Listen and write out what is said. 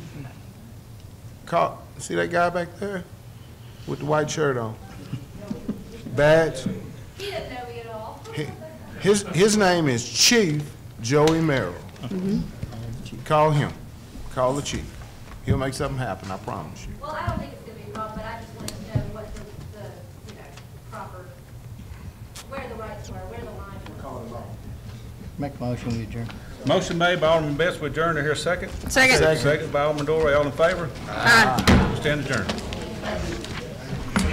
caught, see that guy back there with the white shirt on? Badge? He didn't know me at all. He- His, his name is Chief Joey Merrill. Call him. Call the chief. He'll make something happen, I promise you. Well, I don't think it's gonna be a problem, but I just wanted to know what the, the, you know, proper, where the rights were, where the lines were. Make a motion, we adjourn. Motion made by Alderman Betts, we adjourn to here second. Second. Second by Alderman Dory, all in favor? Aye. Stand adjourned.